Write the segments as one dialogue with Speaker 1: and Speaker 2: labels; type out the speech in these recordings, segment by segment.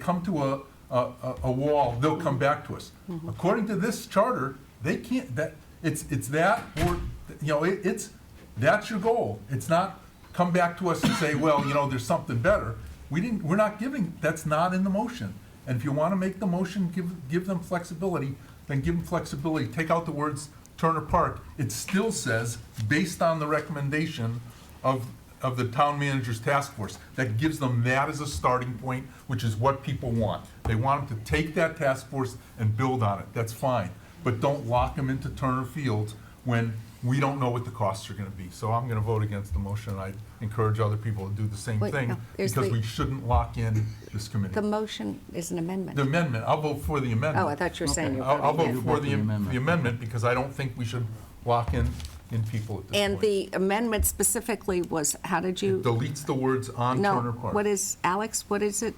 Speaker 1: come to a, a- a, a wall, they'll come back to us. According to this charter, they can't, that, it's, it's that, or, you know, it, it's, that's your goal. It's not come back to us and say, well, you know, there's something better. We didn't, we're not giving, that's not in the motion. And if you want to make the motion, give, give them flexibility, then give them flexibility. Take out the words Turner Park. It still says, based on the recommendation of, of the town manager's task force. That gives them that as a starting point, which is what people want. They want them to take that task force and build on it, that's fine. But don't lock them into Turner Fields when we don't know what the costs are gonna be. So I'm gonna vote against the motion, I encourage other people to do the same
Speaker 2: Wait,
Speaker 1: thing,
Speaker 2: no, there's
Speaker 1: because
Speaker 2: the-
Speaker 1: we shouldn't lock in this
Speaker 2: The
Speaker 1: committee.
Speaker 2: motion is an amendment.
Speaker 1: The amendment, I'll vote for the amendment.
Speaker 2: Oh, I thought you were saying you were
Speaker 1: I'll, I'll
Speaker 2: voting
Speaker 1: vote
Speaker 2: in.
Speaker 1: for the,
Speaker 3: Vote the amendment.
Speaker 1: the amendment, because I don't think we should lock in, in people at this point.
Speaker 2: And the amendment specifically was, how did
Speaker 1: It
Speaker 2: you?
Speaker 1: Deletes the words on Turner
Speaker 2: No,
Speaker 1: Park.
Speaker 2: what is, Alex, what is it?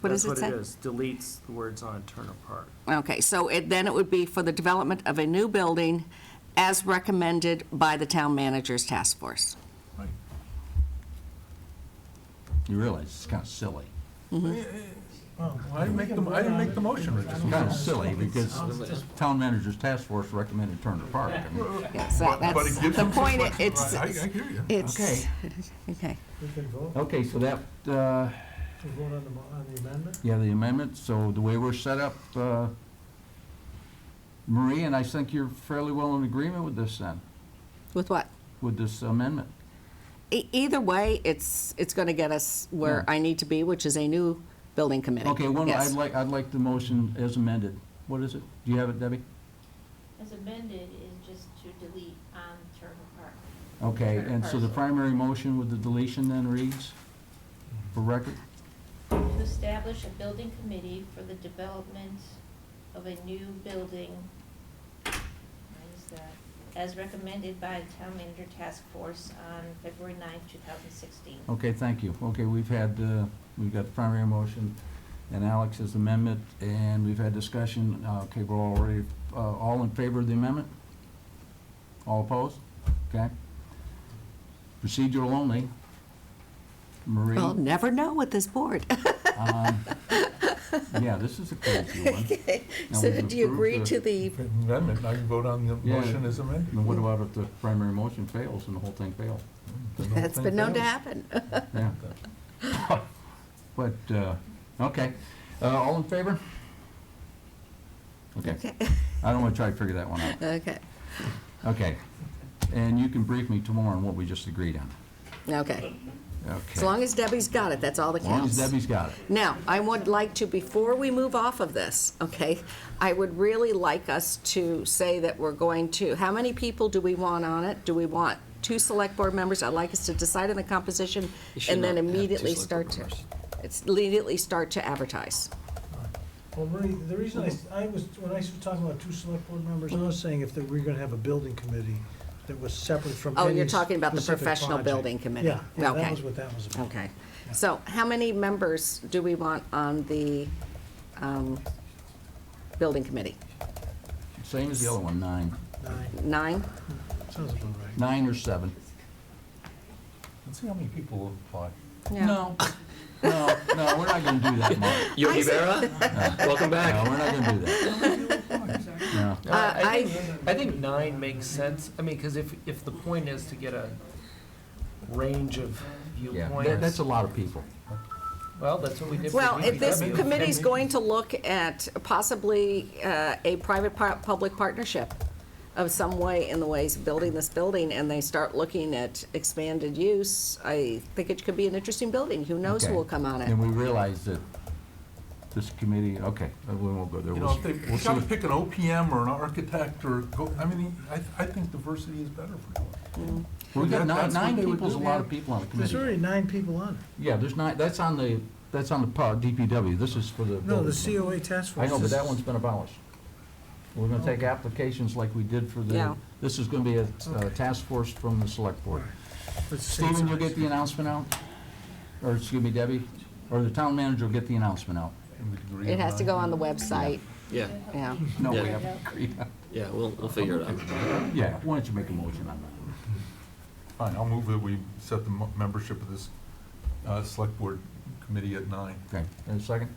Speaker 2: What does it
Speaker 4: That's
Speaker 2: say?
Speaker 4: what it is, deletes the words on Turner Park.
Speaker 2: Okay, so it, then it would be for the development of a new building as recommended by the town manager's task force.
Speaker 1: Right.
Speaker 3: You realize it's kind of silly.
Speaker 1: Well, I didn't make the, I didn't make the motion, Rich.
Speaker 3: It's kind of silly because the town manager's task force recommended Turner Park. I mean,
Speaker 2: Yes, that-
Speaker 1: But- but it
Speaker 2: that's
Speaker 1: gives
Speaker 2: the
Speaker 1: them some
Speaker 2: point,
Speaker 1: flex-
Speaker 2: it's,
Speaker 1: I, I hear you.
Speaker 2: it's, okay.
Speaker 5: We can vote,
Speaker 3: Okay, so that, uh,
Speaker 5: we vote on the, mo- on the amendment?
Speaker 3: yeah, the amendment, so the way we're set up, uh, Marie, and I think you're fairly well in agreement with this then,
Speaker 2: With what?
Speaker 3: with this amendment.
Speaker 2: E- Either way, it's, it's going to get us where
Speaker 3: Yeah.
Speaker 2: I need to be, which is a new building committee.
Speaker 3: Okay, one, I'd
Speaker 2: Yes.
Speaker 3: like, I'd like the motion as amended. What is it? Do you have it, Debbie?
Speaker 6: As amended is just to delete on Turner Park.
Speaker 3: Okay,
Speaker 6: Turner
Speaker 3: and so the
Speaker 6: Parcel.
Speaker 3: primary motion with the deletion then reads, for record?
Speaker 6: To establish a building committee for the development of a new building, what is that? As recommended by the town manager task force on February 9th, two thousand sixteen.
Speaker 3: Okay, thank you. Okay, we've had, uh, we've got the primary motion and Alex's amendment, and we've had discussion. Uh, Okay, we're already, uh, all in favor of the amendment? All opposed? Okay. Procedural only. Marie?
Speaker 2: Well, never know with this board.
Speaker 3: um, Yeah, this is a crazy one. Now
Speaker 2: So
Speaker 3: we've
Speaker 2: do you
Speaker 3: approved
Speaker 2: agree
Speaker 3: the-
Speaker 2: to the,
Speaker 1: Amendment, now you vote on the
Speaker 3: Yeah.
Speaker 1: motion as amended.
Speaker 3: And what about if the primary motion fails and the whole thing fails?
Speaker 1: Then the whole
Speaker 2: that's
Speaker 1: thing
Speaker 2: been known to
Speaker 1: fails.
Speaker 2: happen.
Speaker 3: Yeah. But, uh, okay. Uh, All in favor? Okay.
Speaker 2: Okay.
Speaker 3: I don't want to try to figure that one out.
Speaker 2: Okay,
Speaker 3: Okay. And you can brief me tomorrow on what we just agreed on.
Speaker 2: okay.
Speaker 3: Okay.
Speaker 2: As long as Debbie's got it, that's all that
Speaker 3: As long as
Speaker 2: counts.
Speaker 3: Debbie's got it.
Speaker 2: Now, I would like to, before we move off of this, okay, I would really like us to say that we're going to, how many people do we want on it? Do we want two select board members? I'd like us to decide on the composition and then immediately start to, it's immediately start to advertise.
Speaker 5: Well, Marie, the reason I, s- I was, when I was talking about two select board members, I was saying if that we're gonna have a building committee that was separate from
Speaker 2: Oh,
Speaker 5: any
Speaker 2: you're talking about the
Speaker 5: specific
Speaker 2: professional
Speaker 5: project.
Speaker 2: building committee.
Speaker 5: Yeah, yeah,
Speaker 2: Okay.
Speaker 5: that was what that was about.
Speaker 2: Okay. So how many members do we want on the um, building committee?
Speaker 3: Same as the other one, nine.
Speaker 5: Nine,
Speaker 2: Nine?
Speaker 5: sounds about right.
Speaker 3: Nine or seven.
Speaker 1: Let's see how many people will apply.
Speaker 3: No. No, no, we're not going to do that, Mark.
Speaker 4: Yogi Berra, welcome
Speaker 3: No, we're not going to do that. No.
Speaker 2: Uh,
Speaker 4: I think, I think nine makes sense, I mean, because if, if the point is to get a range of
Speaker 3: Yeah, that- that's
Speaker 4: viewpoints,
Speaker 3: a lot of people.
Speaker 4: well, that's what we did for
Speaker 2: Well, if this
Speaker 4: DPW.
Speaker 2: committee's going to look at possibly uh, a private-public partnership of some way in the ways of building this building, and they start looking at expanded use, I think it could be an interesting building. Who knows who
Speaker 3: Okay.
Speaker 2: will come on it?
Speaker 3: And we realize that this committee, okay, uh, we won't go there.
Speaker 1: You
Speaker 3: We'll
Speaker 1: know, if
Speaker 3: see.
Speaker 1: they, you gotta pick an OPM or an architect or, go- I mean, I, I think diversity is better for you.
Speaker 3: We've got
Speaker 1: That-
Speaker 3: nine,
Speaker 1: that's what
Speaker 3: nine
Speaker 1: they would
Speaker 3: people's a
Speaker 1: do.
Speaker 3: lot of people on the
Speaker 5: There's
Speaker 3: committee.
Speaker 5: already nine people on it.
Speaker 3: Yeah, there's nine, that's on the, that's on the pub- DPW. This is for the.
Speaker 5: No,
Speaker 3: building.
Speaker 5: the COA task
Speaker 3: I
Speaker 5: force.
Speaker 3: know, but
Speaker 5: this
Speaker 3: that
Speaker 5: is-
Speaker 3: one's been abolished. We're gonna take applications like we did for
Speaker 2: Yeah.
Speaker 3: the, this is gonna be a uh, task force from the select board.
Speaker 5: It's the same
Speaker 3: Stephen, you'll
Speaker 5: size.
Speaker 3: get the announcement out? Or, excuse me, Debbie, or the town manager will get the announcement out?
Speaker 1: And the degree
Speaker 2: It
Speaker 1: of
Speaker 2: has to
Speaker 1: nine.
Speaker 2: go on the website,
Speaker 7: Yeah,
Speaker 2: yeah.
Speaker 3: No, we
Speaker 7: Yeah.
Speaker 3: haven't agreed on
Speaker 7: yeah, we'll, we'll figure it out.
Speaker 3: that. Yeah, why don't you make a motion on that?
Speaker 1: Fine, I'll move that we set the mo- membership of this, uh, select board committee at nine.
Speaker 3: Okay, and a second?